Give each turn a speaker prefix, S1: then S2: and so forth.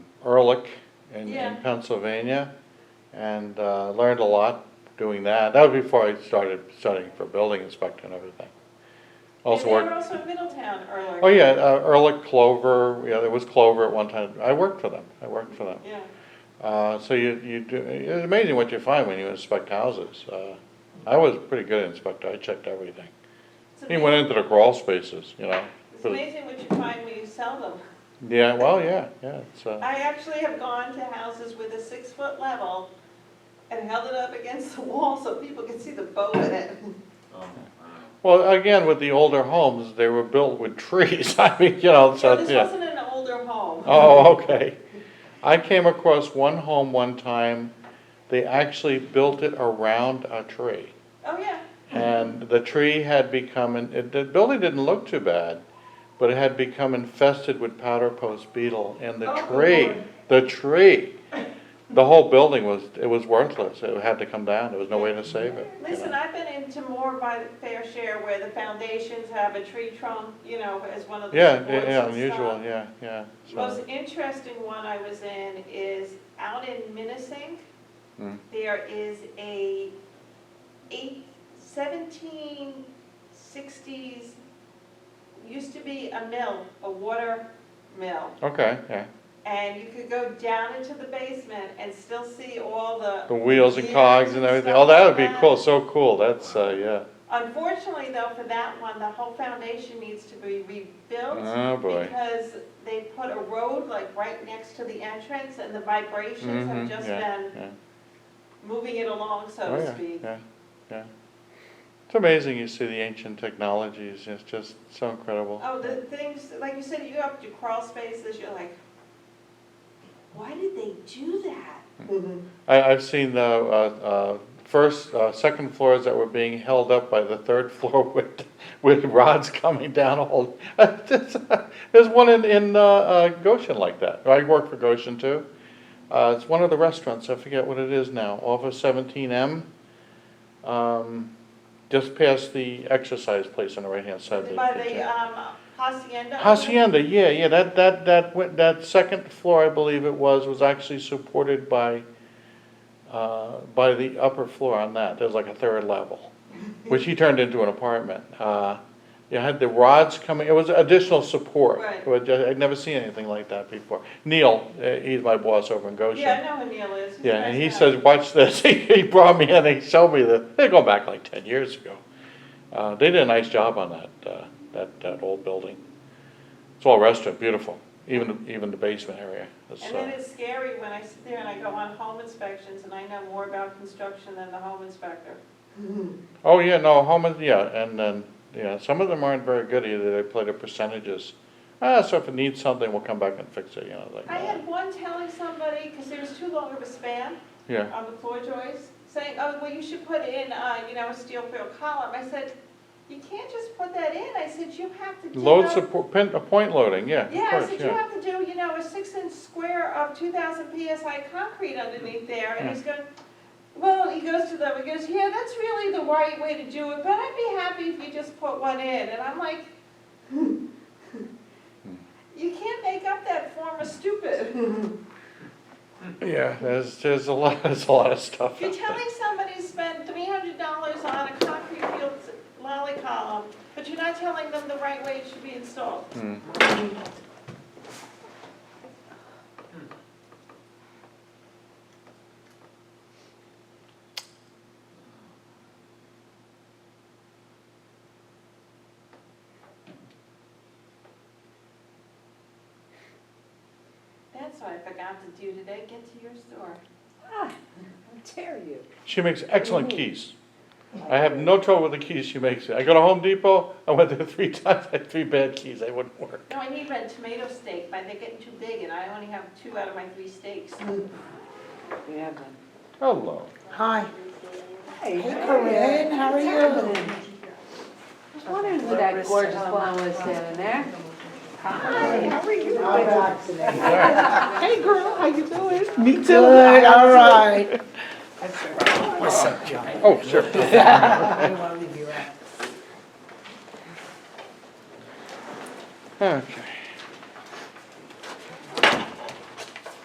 S1: Ehrlich in,
S2: Yeah.
S1: in Pennsylvania, and, uh, learned a lot doing that. That was before I started studying for building inspector and everything. Also
S2: And they were
S1: worked,
S2: also in Middletown earlier.
S1: oh yeah, uh, Ehrlich Clover, yeah, there was Clover at one time. I worked for them, I worked for them.
S2: Yeah,
S1: Uh, so you, you do, it's amazing what you find when you inspect houses. Uh, I was a pretty good inspector, I checked everything.
S2: it's
S1: He went
S2: amazing,
S1: into the crawl spaces, you know.
S2: it's
S1: for the-
S2: amazing what you find when you sell them.
S1: Yeah, well, yeah, yeah, it's, uh,
S2: I actually have gone to houses with a six-foot level and held it up against the wall so people could see the bow in it.
S3: Oh,
S1: well, again, with the older homes, they were built with trees, I mean, you know,
S2: So
S1: so,
S2: Oh, this
S1: yeah.
S2: wasn't an older home.
S1: Oh, okay. I came across one home one time, they actually built it around a tree.
S2: Oh, yeah,
S1: And the tree had become, in- it, the building didn't look too bad, but it had become infested with powder post beetle and the
S2: Oh,
S1: tree,
S2: Lord.
S1: the tree. The whole building was, it was worthless. It had to come down. There was no way to save it. you know.
S2: listen, I've been into more by the fair share where the foundations have a tree trunk, you know, as one of the
S1: Yeah,
S2: supports
S1: yeah, yeah,
S2: and stuff.
S1: unusual, yeah, yeah. so-
S2: Most interesting one I was in is out in Minnesink.
S1: Mm.
S2: There is a eight, seventeen sixties, used to be a mill, a water mill.
S1: Okay, yeah.
S2: And you could go down into the basement and still see all the,
S1: The wheels and cogs and everything. Oh, that would be cool, so cool. That's, uh, yeah.
S2: unfortunately though, for that one, the whole foundation needs to be rebuilt.
S1: Oh, boy.
S2: Because they put a road like right next to the entrance and the vibrations have
S1: Mhm,
S2: just
S1: yeah,
S2: been
S1: yeah.
S2: moving it along, so
S1: Oh,
S2: to
S1: yeah,
S2: speak.
S1: Yeah, yeah. It's amazing you see the ancient technologies. It's just so incredible.
S2: Oh, the things, like you said, you have to crawl spaces, you're like, why did they do that?
S1: I, I've seen the, uh, uh, first, uh, second floors that were being held up by the third floor with, with rods coming down all. There's one in, in, uh, uh, Goshen like that. I work for Goshen too. Uh, it's one of the restaurants, I forget what it is now, off of seventeen M. Um, just past the exercise place on the right-hand side. of the-
S2: By
S1: the
S2: the,
S1: gym.
S2: um, hacienda.
S1: Hacienda, yeah, yeah, that, that, that, went- that second floor, I believe it was, was actually supported by, uh, by the upper floor on that, there's like a third level, which he turned into an apartment. Uh, You had the rods coming, it was additional support.
S2: Right.
S1: But I'd never seen anything like that before. Neil, uh, he's my boss over in Goshen.
S2: Yeah, I know who Neil is. He's a
S1: Yeah, and he
S2: nice guy.
S1: says, watch this, he brought me in, he showed me the, they're going back like ten years ago. Uh, they did a nice job on that, uh, that, that old building. It's all restaurant, beautiful, even, even the basement area, it's,
S2: And then
S1: uh,
S2: it's scary when I sit there and I go on home inspections and I know more about construction than the home inspector.
S1: oh, yeah, no, home, is- yeah, and then, yeah, some of them aren't very good either, they play the percentages. Ah, so if it needs something, we'll come back and fix it, you know, like,
S2: I
S1: uh,
S2: had one telling somebody, because there was too long of a span,
S1: yeah,
S2: on the floor joists, saying, oh, well, you should put in, uh, you know, a steel fill column. I said, you can't just put that in. I said, you have to do.
S1: load
S2: a-
S1: support, pin, uh, point loading, yeah, of
S2: Yeah, I
S1: course,
S2: said, you
S1: yeah.
S2: have to do, you know, a six inch square of two thousand PSI concrete underneath there. And
S1: Yeah.
S2: he's going, well, he goes to them, he goes, yeah, that's really the right way to do it, but I'd be happy if you just put one in. And I'm like,
S1: Hmm.
S2: you can't make up that form of stupid.
S1: Yeah, there's, there's a lot, there's a lot of stuff.
S2: If you're
S1: out there.
S2: telling somebody to spend three hundred dollars on a concrete field lolly column, but you're not telling them the right way it should be installed.
S1: Hmm.
S2: That's what I forgot to do today, get to your store.
S4: Ah, how dare you?
S1: She makes excellent keys. I have no trouble with the keys she makes. I go to Home Depot, I went there three times, I had three bad keys, they wouldn't work.
S2: No, I need red tomato steak, but they're getting too big and I only have two out of my three steaks.
S4: We have them.
S1: Hello.
S5: Hi,
S4: Hey,
S5: Corinne, how are you?
S4: I was wondering who that gorgeous blonde was standing there. Hi, how are you?
S5: I'm back today.
S4: Hey, girl, how you doing?
S5: Me too.
S1: Oh,
S5: Good, all right. What's up, John?
S1: Oh, sure.
S5: I don't wanna leave you out.
S1: Okay.